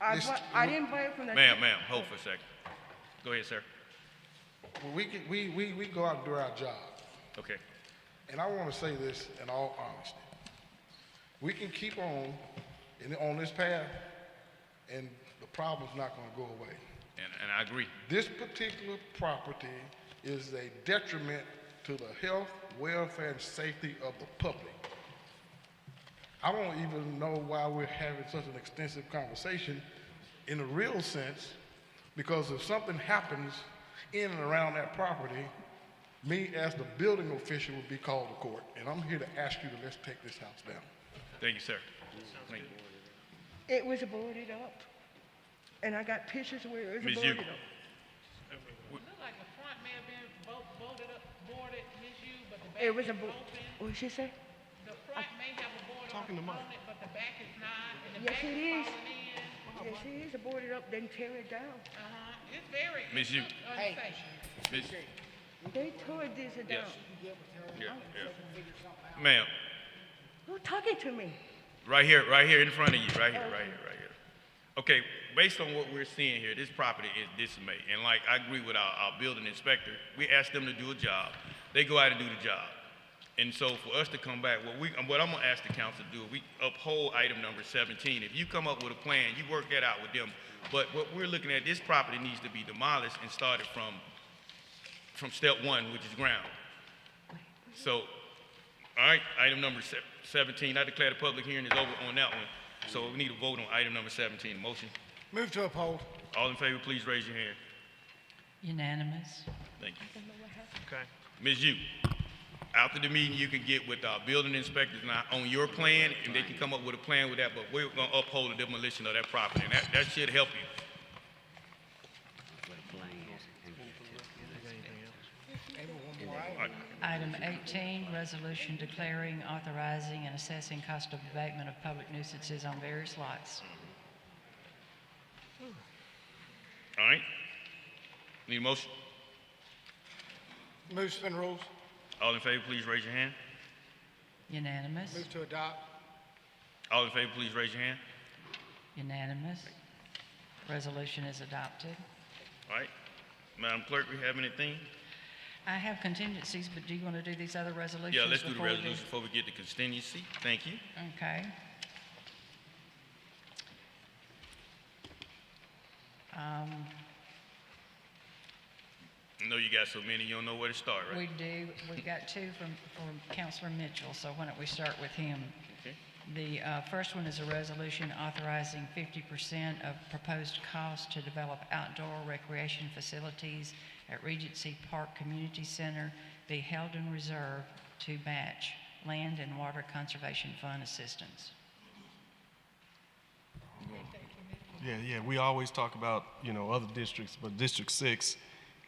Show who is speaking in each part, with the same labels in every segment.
Speaker 1: I,
Speaker 2: Mr.
Speaker 1: bu- I didn't buy it from the.
Speaker 3: Ma'am, ma'am, hold for a second. Go ahead, sir.
Speaker 2: Well, we, can, we, we, we go out and do our job.
Speaker 3: Okay.
Speaker 2: And I want to say this in all honesty. We can keep on in, on this path, and the problem's not going to go away.
Speaker 3: And, and I agree.
Speaker 2: This particular property is a detriment to the health, welfare, and safety of the public. I don't even know why we're having such an extensive conversation in a real sense, because if something happens in and around that property, me as the building official would be called to court, and I'm here to ask you to let's take this house down.
Speaker 3: Thank you, sir. Thank you.
Speaker 1: It was boarded up. And I got pictures where it was
Speaker 3: Ms.
Speaker 1: boarded up.
Speaker 3: Yuko.
Speaker 4: Looked like the front may have been bo- boarded up, boarded, misused, but the
Speaker 1: It
Speaker 4: back
Speaker 1: was
Speaker 4: is
Speaker 1: a board,
Speaker 4: open.
Speaker 1: what'd she say?
Speaker 4: The front may have a board on it, on it, but the back is not, and the
Speaker 1: Yes,
Speaker 4: back
Speaker 1: it
Speaker 4: is
Speaker 1: is.
Speaker 4: falling in.
Speaker 1: Yes, it is boarded up, then tear it down.
Speaker 4: Uh-huh, it's very,
Speaker 3: Ms.
Speaker 4: it's
Speaker 3: Yu-
Speaker 4: unsafe.
Speaker 3: Ms.
Speaker 1: They tore this down.
Speaker 3: Yes. Yeah, yeah. Ma'am,
Speaker 1: Who talking to me?
Speaker 3: right here, right here in front of you, right here, right here, right here. Okay, based on what we're seeing here, this property is dismayed. And like, I agree with our, our building inspector. We ask them to do a job. They go out and do the job. And so for us to come back, what we, what I'm gonna ask the council to do, we uphold item number seventeen. If you come up with a plan, you work that out with them. But what we're looking at, this property needs to be demolished and started from, from step one, which is ground. So, all right, item number se- 17, I declare the public hearing is over on that one. So we need a vote on item number 17. Motion,
Speaker 5: Move to uphold.
Speaker 3: all in favor, please raise your hand.
Speaker 6: Unanimous.
Speaker 3: Thank you. Ms. Yu, after the meeting, you can get with our building inspectors now on your plan, and they can come up with a plan with that, but we're gonna uphold the demolition of that property, and that, that should help you.
Speaker 6: Item 18, resolution declaring, authorizing, and assessing cost of abatement of public nuisances on various lots.
Speaker 3: All right? Need a motion?
Speaker 5: Move spin rules.
Speaker 3: All in favor, please raise your hand.
Speaker 6: Unanimous.
Speaker 5: Move to adopt.
Speaker 3: All in favor, please raise your hand.
Speaker 6: Unanimous. Resolution is adopted.
Speaker 3: All right? Madam Clerk, we have anything?
Speaker 6: I have contingencies, but do you want to do these other resolutions?
Speaker 3: Yeah, let's do the
Speaker 6: before we
Speaker 3: resolution before we get to contingency. Thank you.
Speaker 6: Okay. Um,
Speaker 3: I know you got so many, you don't know where to start, right?
Speaker 6: We do, we got two from, from Counselor Mitchell, so why don't we start with him?
Speaker 3: Okay.
Speaker 6: The uh, first one is a resolution authorizing 50% of proposed cost to develop outdoor recreation facilities at Regency Park Community Center be held in reserve to match land and water conservation fund assistance.
Speaker 7: Yeah, yeah, we always talk about, you know, other districts, but District Six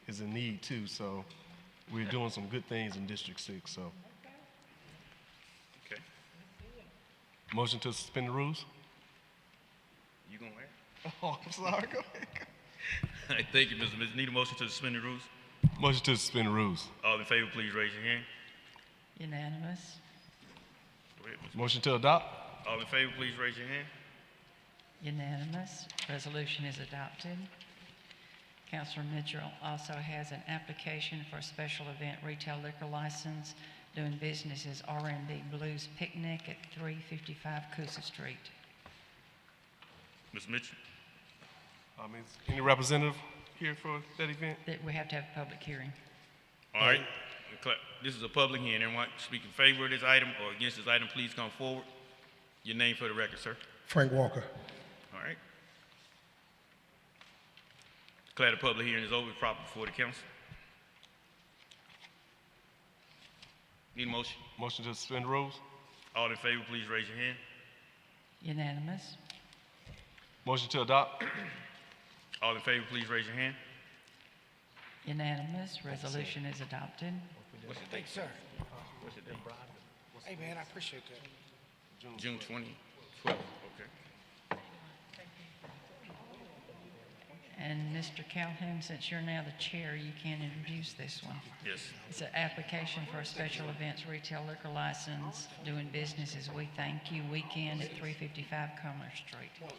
Speaker 7: is in need too, so we're doing some good things in District Six, so.
Speaker 3: Okay.
Speaker 7: Motion to suspend the rules?
Speaker 3: You gonna wear?
Speaker 7: Oh, I'm sorry, go ahead.
Speaker 3: All right, thank you, Mr. Mitchell. Need a motion to suspend the rules?
Speaker 7: Motion to suspend the rules.
Speaker 3: All in favor, please raise your hand.
Speaker 6: Unanimous?
Speaker 3: Go ahead, Mr.
Speaker 7: Motion to adopt?
Speaker 3: All in favor, please raise your hand.
Speaker 6: Unanimous. Resolution is adopted. Counselor Mitchell also has an application for a special event retail liquor license doing business as r and b Blues Picnic at 355 Coosa Street.
Speaker 3: Ms. Mitchell?
Speaker 7: Um, is any representative here for that event?
Speaker 6: That we have to have a public hearing.
Speaker 3: All right. Cla- This is a public hearing. Anyone speak in favor of this item or against this item, please come forward. Your name for the record, sir.
Speaker 2: Frank Walker.
Speaker 3: All right. Declare the public hearing is over, proper before the council. Need a motion?
Speaker 7: Motion to suspend the rules?
Speaker 3: All in favor, please raise your hand.
Speaker 6: Unanimous.
Speaker 7: Motion to adopt?
Speaker 3: All in favor, please raise your hand.
Speaker 6: Unanimous. Resolution is adopted.
Speaker 5: Thanks, sir. Hey, man, I appreciate that.
Speaker 3: June 20, 12, okay.
Speaker 6: And Mr. Calhoun, since you're now the chair, you can introduce this one.
Speaker 3: Yes.
Speaker 6: It's an application for a special events retail liquor license doing business as We Thank You Weekend at 355 Commerce Street.